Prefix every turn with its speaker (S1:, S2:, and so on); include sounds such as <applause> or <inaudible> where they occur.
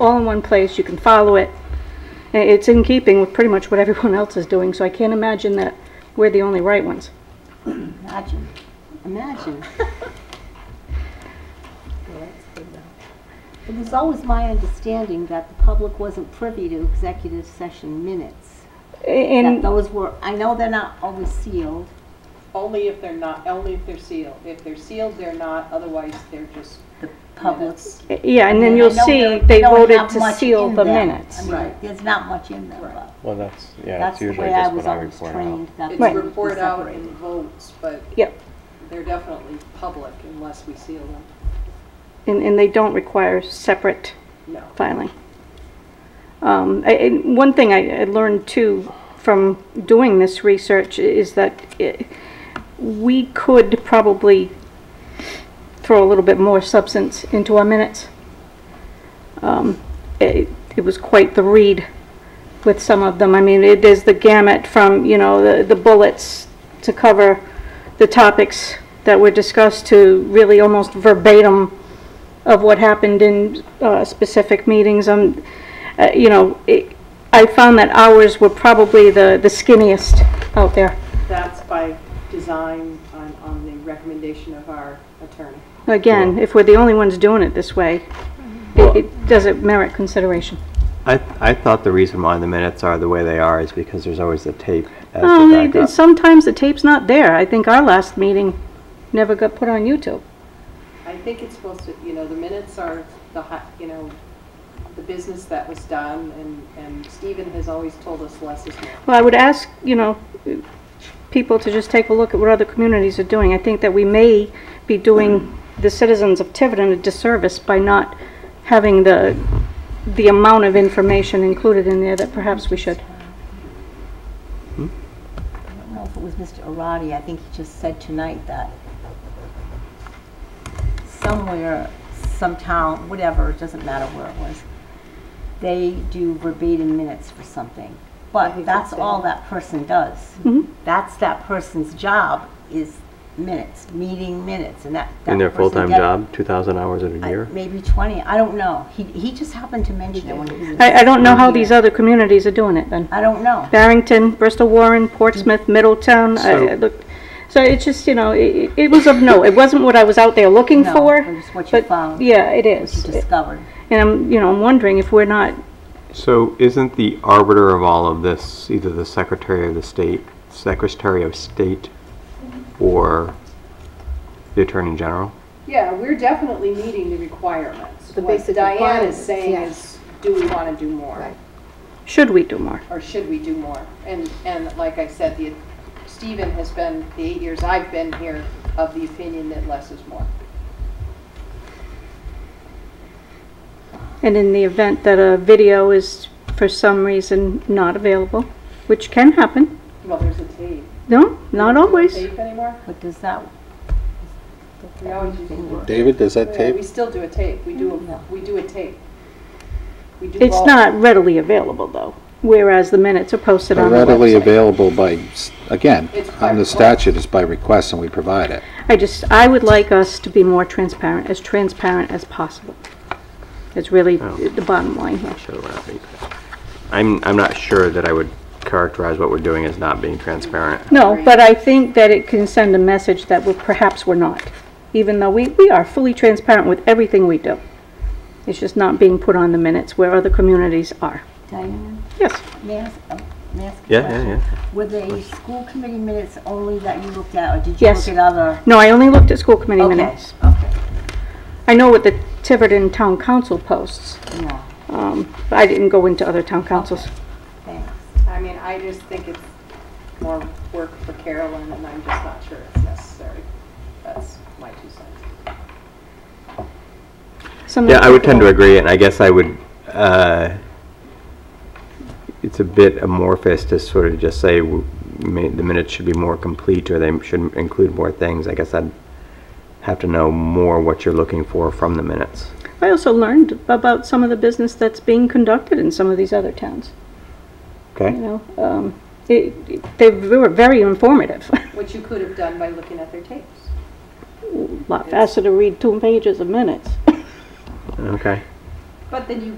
S1: all in one place, you can follow it. I- It's in keeping with pretty much what everyone <laughs> else is doing, so I can't imagine that we're the only right ones.
S2: Imagine, imagine. It was always my understanding that the public wasn't privy to executive session minutes.
S1: A-
S2: That
S1: And,
S2: those were, I know they're not always sealed.
S3: Only if they're not, only if they're sealed. If they're sealed, they're not, otherwise they're just.
S2: The public.
S3: Minutes.
S1: yeah, and then
S2: I
S1: you'll
S2: know
S1: see
S2: there-
S1: they
S2: don't
S1: voted
S2: have
S1: to
S2: much
S1: seal
S2: in
S1: the
S2: them. I
S1: minutes.
S2: mean, there's not much in them, but
S4: Well, that's, yeah,
S2: that's
S4: it's
S2: the
S4: usually
S2: way I
S4: just
S2: was
S4: what I
S2: always
S4: report out.
S2: trained. that
S3: It's
S2: they
S1: Right.
S2: would be
S3: report out
S2: separated.
S3: in votes, but
S1: Yep,
S3: they're definitely public unless we seal them.
S1: and, and they don't require separate
S3: No.
S1: filing. Um, I- and One thing I I learned too from doing this research is that it- we could probably throw a little bit more substance into our minutes. Um, It it was quite the read with some of them. I mean, it is the gamut from, you know, the the bullets to cover the topics that were discussed to really almost verbatim of what happened in uh, specific meetings. Um, uh, You know, it- I found that ours were probably the the skinniest out there.
S3: That's by design on, on the recommendation of our attorney.
S1: Again, if we're the only ones doing it this way, it- it does it merit consideration.
S4: I, I thought the reason why the minutes are the way they are is because there's always the tape as
S2: Oh,
S1: Um,
S4: the
S1: it-
S4: backup.
S1: Sometimes the tape's not there. I think our last meeting never got put on YouTube.
S3: I think it's supposed to, you know, the minutes are the, hi- you know, the business that was done, and, and Stephen has always told us less is more.
S1: Well, I would ask, you know, people to just take a look at what other communities are doing. I think that we may be doing the citizens of Tiverton a disservice by not having the, the amount of information included in there that perhaps we should.
S2: I don't know if it was Mr. Arati, I think he just said tonight that somewhere, some town, whatever, it doesn't matter where it was, they do verbatim minutes for something. But that's all that person does.
S1: Mm-hmm.
S2: That's that person's job is minutes, meeting minutes, and that. that
S4: In their
S2: person
S4: full-time
S2: get-
S4: job, 2,000 hours in a
S2: I-
S4: year?
S2: Maybe 20, I don't know. He, he just happened to mention it when he was.
S1: I, I don't know how these other communities are doing it then.
S2: I don't know.
S1: Barrington, Bristol Warren, Portsmouth, Middletown, I- I
S4: So-
S1: looked, so it's just, you know, it, it was of no, it wasn't what I was out there looking
S2: No,
S1: for.
S2: it was what you
S1: but
S2: found,
S1: Yeah, it
S2: What you
S1: is.
S2: discovered.
S1: And I'm, you know, I'm wondering if we're not
S4: So isn't the arbiter of all of this either the Secretary of the State, Secretary of State, or the Attorney General?
S3: Yeah, we're definitely meeting the requirements. The What
S5: basic
S3: Diane is
S5: requirements,
S3: saying
S5: yeah.
S3: is, do we want to do more?
S5: Right.
S1: Should we do more?
S3: Or should we do more? And, and like I said, the, Stephen has been, the eight years I've been here, of the opinion that less is more.
S1: And in the event that a video is for some reason not available, which can happen,
S3: Well, there's a tape.
S1: no, not always.
S3: Tape anymore?
S2: But does that,
S3: We always use the word.
S6: David, does that
S3: Yeah,
S6: tape?
S3: We still do a tape. We do, a we do a tape. We do
S1: It's
S3: both.
S1: not readily available though, whereas the minutes are posted on the
S6: Readily
S1: website.
S6: available by, s- again,
S3: It's by
S6: on the
S3: request.
S6: statute, it's by request and we provide it.
S1: I just, I would like us to be more transparent, as transparent as possible. It's really the bottom line here.
S4: Sure, we're not being trans- I'm, I'm not sure that I would characterize what we're doing as not being transparent.
S1: No, but I think that it can send a message that we're, perhaps we're not, even though we, we are fully transparent with everything we do. It's just not being put on the minutes where other communities are.
S2: Diane?
S1: Yes.
S2: May I ask, oh, may I ask a
S4: Yeah, yeah,
S2: question?
S4: yeah.
S2: Were they school committee minutes only that you looked at, or did you
S1: Yes.
S2: look at other?
S1: No, I only looked at school committee
S2: Okay,
S1: minutes.
S2: Okay,
S1: I know what the Tiverton Town Council posts,
S2: no,
S1: um, but I didn't go into other town councils.
S2: thanks.
S3: I mean, I just think it's more work for Carolyn, and I'm just not sure it's necessary. That's my two cents.
S4: Yeah, I would tend to agree, and I guess I would, uh, it's a bit amorphous to sort of just say w- ma- the minutes should be more complete, or they should include more things. I guess I'd have to know more what you're looking for from the minutes.
S1: I also learned about some of the business that's being conducted in some of these other towns, you
S4: Okay?
S1: know. Um, it, it- they were very informative. <laughs>
S3: Which you could have done by looking at their tapes.
S1: A Lot faster to read two pages of minutes.
S4: Okay.
S3: But then you